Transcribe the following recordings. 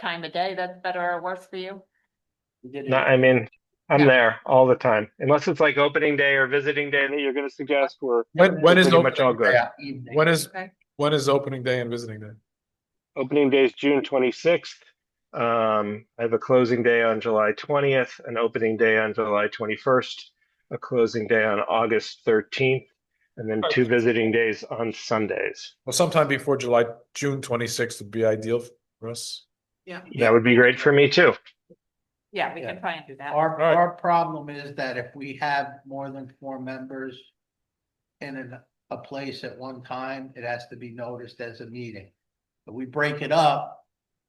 time of day that's better or worse for you? We did No, it. I mean, I'm Yeah. there all the time, unless it's like opening day or visiting day that you're gonna suggest. We're When, when is pretty much all opening good. day? Evening. When is, Okay. when is opening day and visiting day? Opening day is June twenty-sixth. Um, I have a closing day on July twentieth, an opening day on July twenty-first, a closing day on August thirteenth, and then two visiting days on Sundays. Well, sometime before July, June twenty-sixth would be ideal for us. That would be great for me too. Yeah, we Yeah. can try and do that. Our, Alright. our problem is that if we have more than four members in an- a place at one time, it has to be noticed as a meeting. If we break it up,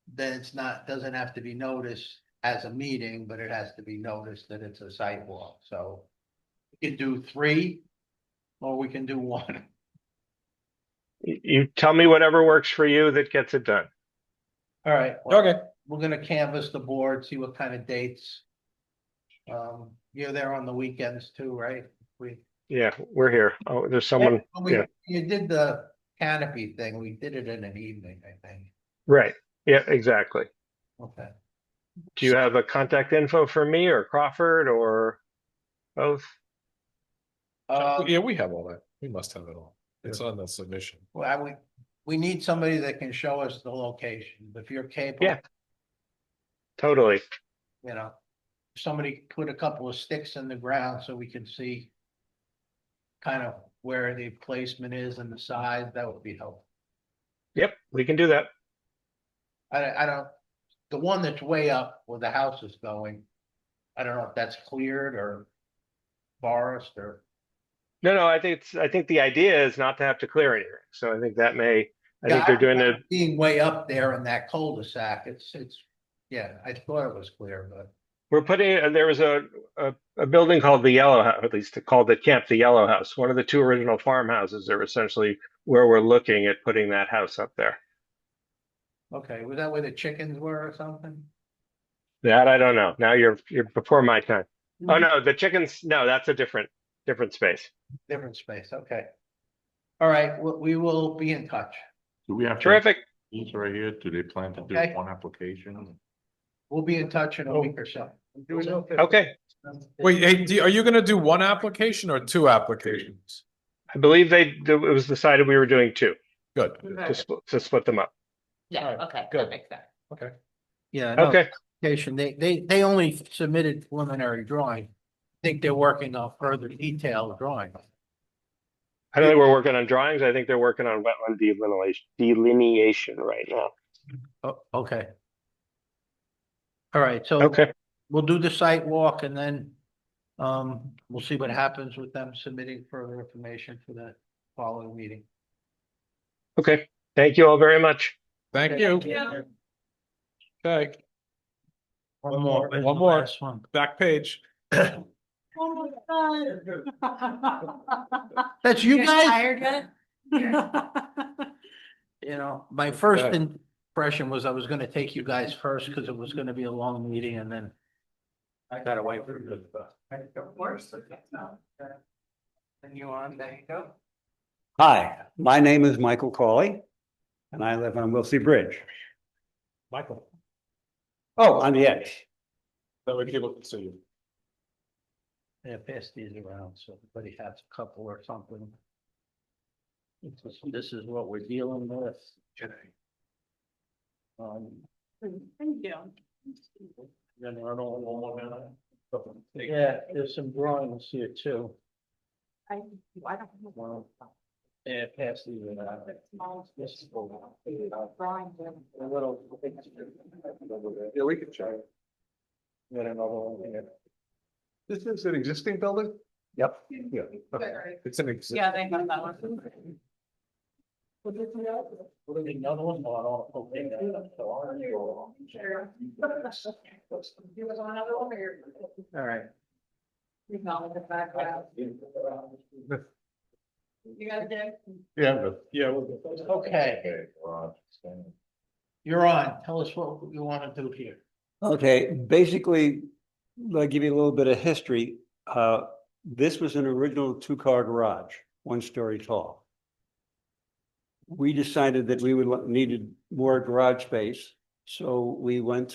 then it's not, doesn't have to be noticed as a meeting, but it has to be noticed that it's a sidewalk, so we can do three, or we can do one. You, you tell me whatever works for you that gets it done. All right. well, Okay, We're gonna canvass the board, see what kind of dates. Um, you're there on the weekends too, right? We. Yeah, we're here. Oh, there's someone, When we, yeah. you did the canopy thing, we did it in an evening, I think, right? Yeah, exactly. okay. Do you have a contact info for me or Crawford or both? Uh, yeah, we have all that. We must have it all. It's on the submission. well, we, we need somebody that can show us the location, if you're capable, Yeah. Totally. you know. Somebody put a couple of sticks in the ground so we can see. Kind of where the placement is and the size, that would be helpful. Yep, we can do that. I, I don't, the one that's way up where the house is going. I don't know if that's cleared or forest or, No, no, I think it's, I think the idea is not to have to clear anything. So I think that may, I Yeah, think they're doing it. being way up there in that cul-de-sac, it's, it's, yeah, I thought it was clear, but. We're putting, uh, there was a, a, a building called the Yellow House, at least called the Camp the Yellow House. One of the two original farmhouses are essentially where we're looking at putting that house up there. Okay, was that where the chickens were or something? That I don't know. Now you're, you're before my time. Oh, no, the chickens, no, that's a different, different space. Different space, okay. All right, we, we will be in touch. Do we have? to- Terrific. These right here, do they plan to do Okay. one application? We'll be in touch in a week or so. Okay. Wait, hey, do- are you gonna do one application or two applications? I believe they, it was decided we were doing two, Good. to split, to split them up. Yeah, Alright, okay, good. that makes sense. Yeah. no, Okay, Application, they, they, they only submitted preliminary drawing. I Think they're working on further detailed drawing. I don't think we're working on drawings. I think they're working on wetland delineation, delineation right now. Oh, okay. All right, so. Okay, we'll do the site walk and then um, we'll see what happens with them submitting further information for the following meeting. okay. Thank you all very much. Thank you. Yeah. Okay, One more. One more. Last one. back page. That's you guys, Tired yet? you know, my first Okay. impression was I was gonna take you guys first because it was gonna be a long meeting and then I got away from it. Of course. And you on, there you go. Hi, my name is Michael Cawley, and I live on Wilsey Bridge. Michael. Oh, on the edge. That way people can see you. Yeah, pass these around, so everybody has a couple or something. This is- This is what we're dealing with today. Um, Thank you. yeah, there's some drawings here too. I, I don't. Well, Yeah, pass these around. This is A little. Yeah, we can check. Got another one here. This is an existing building? Yep. Yeah. It's an existing. they have that one. Another one, oh, I don't- okay, that's the one. All right. You guys did? Yeah, but- yeah. we'll- Okay, you're on. Tell us what you want to do here. Okay, basically, I'll give you a little bit of history. Uh, This was an original two-car garage, one story tall. We decided that we would lo- needed more garage space, So we went